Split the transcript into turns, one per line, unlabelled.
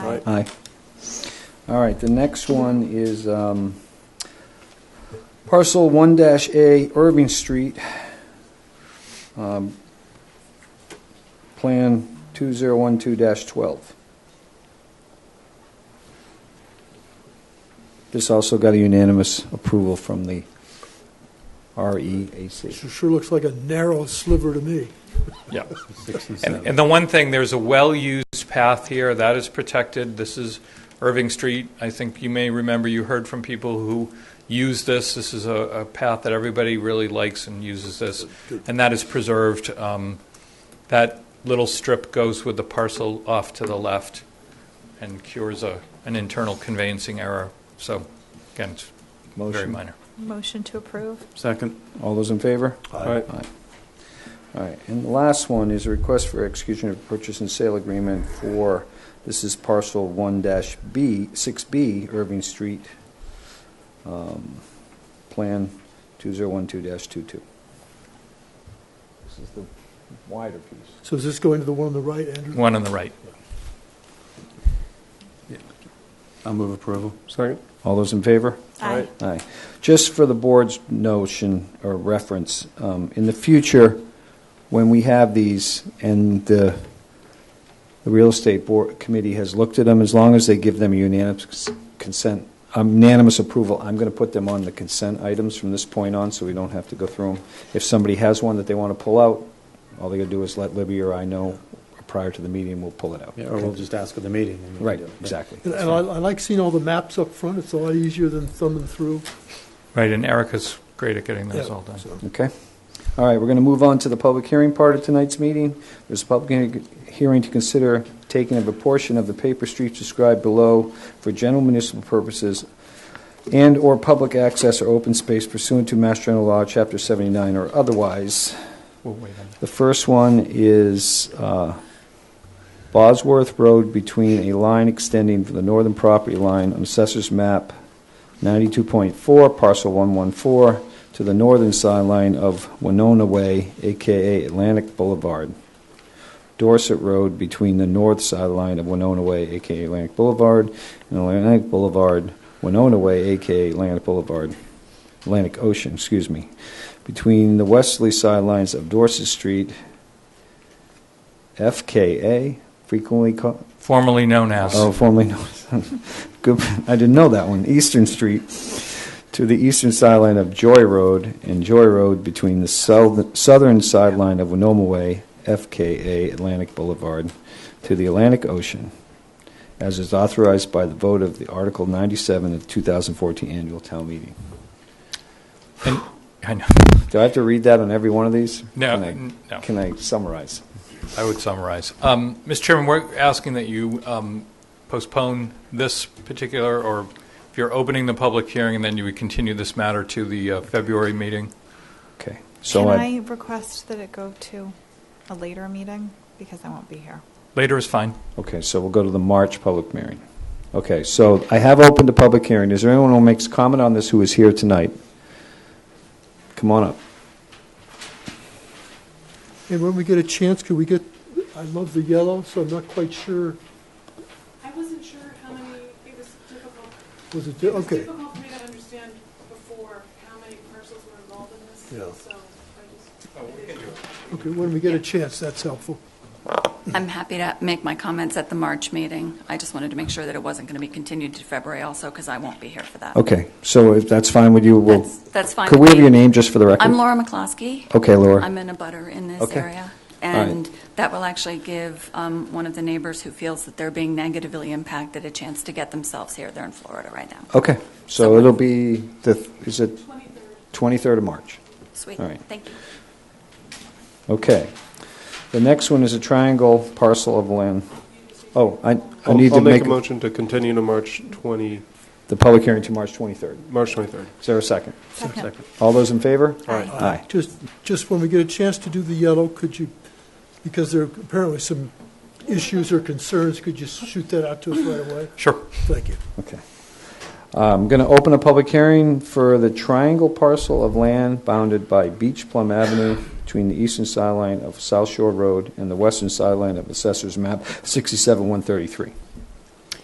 Aye.
Aye. All right, the next one is um, parcel 1-A Irving Street, um, Plan 2012-12. This also got a unanimous approval from the E REAC.
Sure- Sure looks like a narrow sliver to me.
Yeah. And, and the one thing, there's a well-used path here that is protected. This is Irving Street. I think you may remember, you heard from people who use this. This is a, a path that everybody really likes and uses this, and that is preserved. Um, That little strip goes with the parcel off to the left and cures a, an internal conveyancing error. So, again, it's very
Motion.
minor.
Motion to approve.
Second.
All those in favor?
Aye.
All right, and the last one is a request for execution of purchase and sale agreement for, this is parcel one dash B, six B Irving Street, um, Plan two zero one two dash two two. This is the wider piece.
So is this going to the one on the right, Andrew?
One on the right.
I'll move approval.
Second?
All those in favor?
Aye.
Aye. Just for the board's notion or reference, um, in the future, when we have these and the, the real estate board committee has looked at them, as long as they give them unanimous consent, unanimous approval, I'm going to put them on the consent items from this point on, so we don't have to go through them. If somebody has one that they want to pull out, all they got to do is let Libby or I know prior to the meeting, we'll pull it out.
Yeah, or we'll just ask at the meeting. and we can
Right,
do it.
exactly.
And and I I like seeing all the maps up front, it's a lot easier than thumbing through.
Right, and Erica's great at getting those
Yeah,
all done.
so.
Okay. All right, we're going to move on to the public hearing part of tonight's meeting. There's a public hearing- hearing to consider taking of a portion of the paper streets described below for general municipal purposes and/or public access or open space pursuant to Mass General Law, Chapter 79, or otherwise.
We'll wait on that.
The first one is uh, Bosworth Road between a line extending from the northern property line on Assessor's Map 92.4, parcel 114, to the northern sideline of Winona Way, AKA Atlantic Boulevard. Dorset Road between the north sideline of Winona Way, AKA Atlantic Boulevard, and Atlantic Boulevard, Winona Way, AKA Atlantic Boulevard, Atlantic Ocean, excuse me, between the westerly sidelines of Dorset Street, FKA, frequently called,
Formerly known as.
oh, formerly known as, good, I didn't know that one, Eastern Street, to the eastern sideline of Joy Road, and Joy Road between the south- southern sideline of Winoma Way, FKA Atlantic Boulevard, to the Atlantic Ocean, as is authorized by the vote of the Article 97 of 2014 Annual Town Meeting.
And, I know.
Do I have to read that on every one of these?
No,
Can I-
n- no.
Can I summarize?
I would summarize. Um, Mr. Chairman, we're asking that you um, postpone this particular, or if you're opening the public hearing, and then you would continue this matter to the uh, February meeting.
Okay. So
Can I request that it go to a later meeting? Because I won't be here.
Later is fine.
Okay, so we'll go to the March public hearing. Okay, so I have opened a public hearing. Is there anyone who makes comment on this who is here tonight? Come on up.
And when we get a chance, could we get, I love the yellow, so I'm not quite sure,
I wasn't sure how many, it was difficult.
was it,
It was
okay.
difficult for me to understand before how many parcels were involved in this.
Yeah.
So I just.
Okay, when we get a chance, that's helpful.
I'm happy to make my comments at the March meeting. I just wanted to make sure that it wasn't going to be continued to February also, because I won't be here for that.
Okay, so if that's fine with you, we'll.
That's- that's fine
Could we
with
have
me.
your name just for the record?
I'm Laura McCloskey.
Okay, Oh, Laura.
I'm in a butter in this
Okay.
area.
All right.
And that will actually give um, one of the neighbors who feels that they're being negatively impacted a chance to get themselves here. They're in Florida right now.
Okay, so
Someone.
it'll be the, is it? 23rd of March.
Sweet,
All right.
thank you.
Okay. The next one is a triangle parcel of land. Oh, I, I
I'll-
need to
I'll
make
make a motion to continue to March 20,
the public hearing to March 23rd.
March 23rd.
Is there a second?
Second.
All those in favor?
Aye.
Aye.
Uh, Just, just when we get a chance to do the yellow, could you, because there are apparently some issues or concerns, could you shoot that out to us right away?
Sure.
Thank you.
Okay. I'm going to open a public hearing for the triangle parcel of land bounded by Beach Plum Avenue between the eastern sideline of South Shore Road and the western sideline of Assessor's Map 67-133.